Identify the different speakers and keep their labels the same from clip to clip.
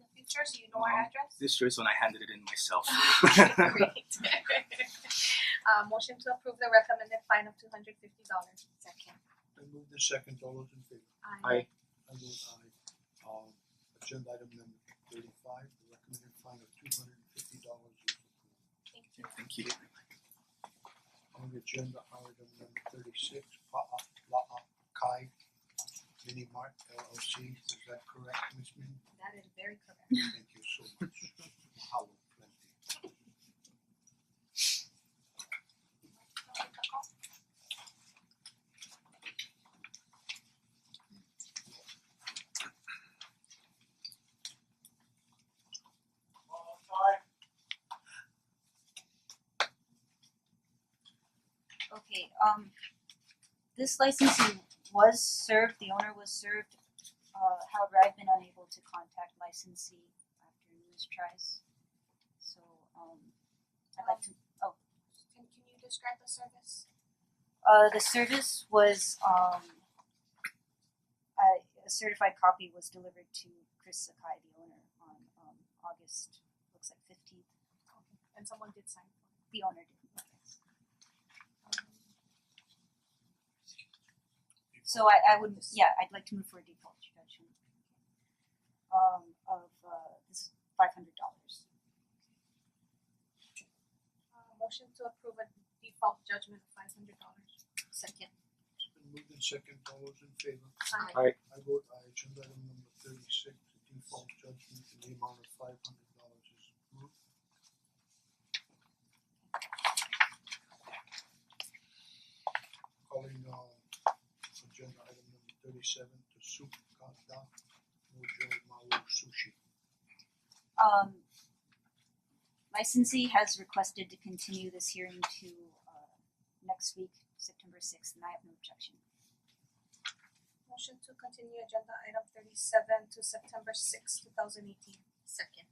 Speaker 1: signature, so you know our
Speaker 2: No.
Speaker 1: address?
Speaker 2: This shows when I handed it in myself.
Speaker 1: Great. Uh, motion to approve the recommended fine of two hundred fifty dollars. Second.
Speaker 3: Then move the second, all those in favor?
Speaker 2: Aye.
Speaker 3: I vote aye. Um agenda item number thirty-five, the recommended fine of two hundred and fifty dollars is approved.
Speaker 1: Thank you.
Speaker 2: Thank you.
Speaker 3: On agenda item number thirty-six, Pa'a La'a Kai Mini Mart LLC, is that correct, Ms. Min?
Speaker 1: That is very correct.
Speaker 3: Thank you so much. Mahalo plenty.
Speaker 4: Okay, um this licensee was served, the owner was served, uh however, I've been unable to contact licensee after numerous tries. So um I'd like to,
Speaker 1: Can can you describe the service?
Speaker 4: uh the service was um I a certified copy was delivered to Chris Sakai, the owner, on um August, looks like fifteenth,
Speaker 1: And someone did sign for it.
Speaker 4: the owner did, I guess. So I I would, yeah, I'd like to move for a default reduction. Um of uh this five hundred dollars.
Speaker 1: Uh, motion to approve a default judgment of five hundred dollars.
Speaker 4: Second.
Speaker 3: It's been moved in second, all those in favor?
Speaker 1: Aye.
Speaker 3: I vote aye, agenda item number thirty-six, the default judgment in the amount of five hundred dollars is approved. Calling uh agenda item number thirty-seven, the Soup Kata Mojo Maru Sushi.
Speaker 4: Um licensee has requested to continue this hearing to uh next week, September sixth, and I have no objection.
Speaker 1: Motion to continue agenda item thirty-seven to September sixth, two thousand eighteen. Second.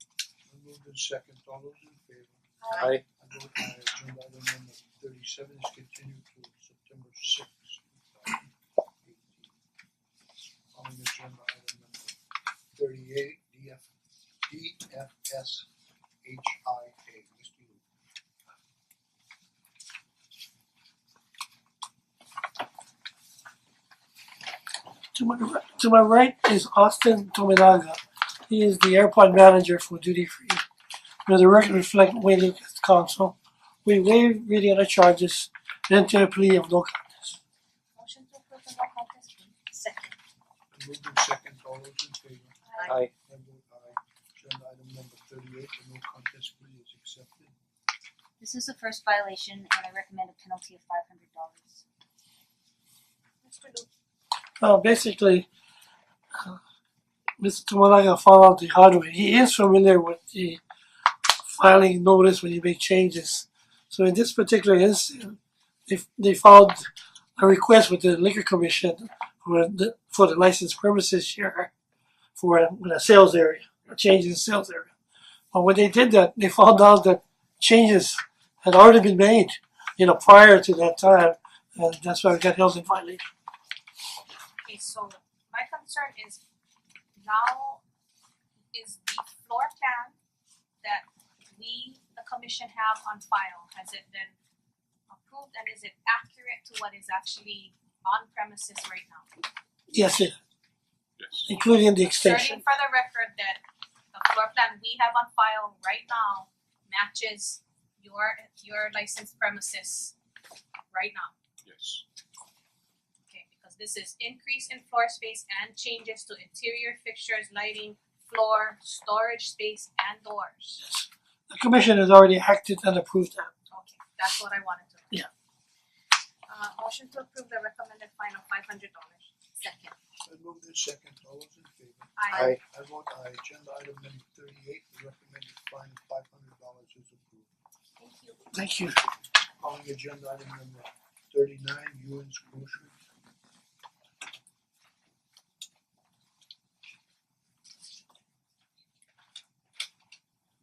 Speaker 3: I moved in second, all those in favor?
Speaker 1: Aye.
Speaker 3: I vote aye, agenda item number thirty-seven is continued to September sixth, two thousand eighteen. Calling agenda item number thirty-eight, DF, DFS HIA, Mr. Yu.
Speaker 5: To my, ri- to my right is Austin Tominaga. He is the airport manager for duty free. May the record reflect Wayne Lucas counsel. We waive reading of the charges and enter a plea of no contest.
Speaker 1: Motion to approve the no contest plea.
Speaker 4: Second.
Speaker 3: I moved in second, all those in favor?
Speaker 1: Aye.
Speaker 3: I vote aye, agenda item number thirty-eight, the no contest plea is accepted.
Speaker 4: This is the first violation and I recommend a penalty of five hundred dollars.
Speaker 1: Mr. Lu,
Speaker 5: Uh, basically, uh, Mr. Tominaga found out the hard way. He is familiar with the filing notice when you make changes. So in this particular instance, they, they filed a request with the liquor commission for the, for the license premises here for a, with a sales area, a change in sales area. But when they did that, they found out that changes had already been made, you know, prior to that time, and that's why we got held in violation.
Speaker 1: okay, so my concern is now is the floor plan that we, the commission have on file, has it been approved and is it accurate to what is actually on premises right now?
Speaker 5: Yes, it, including the
Speaker 1: Asserting
Speaker 5: extension.
Speaker 1: for the record that the floor plan we have on file right now matches your your licensed premises right now.
Speaker 6: Yes.
Speaker 1: Okay, because this is increase in floor space and changes to interior fixtures, lighting, floor, storage space and doors.
Speaker 5: The commission has already acted and approved that.
Speaker 1: Okay, that's what I wanted to know.
Speaker 5: Yeah.
Speaker 1: Uh motion to approve the recommended fine of five hundred dollars. Second.
Speaker 3: I moved in second, all those in favor?
Speaker 1: Aye.
Speaker 3: I vote aye, agenda item number thirty-eight, the recommended fine of five hundred dollars is approved.
Speaker 1: Thank you.
Speaker 5: Thank you.
Speaker 3: Calling agenda item number thirty-nine, Ewan's Grocery.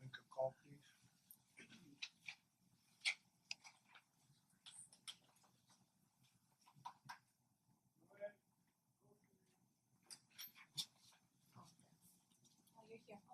Speaker 3: Make a call please.
Speaker 1: Oh, you're here.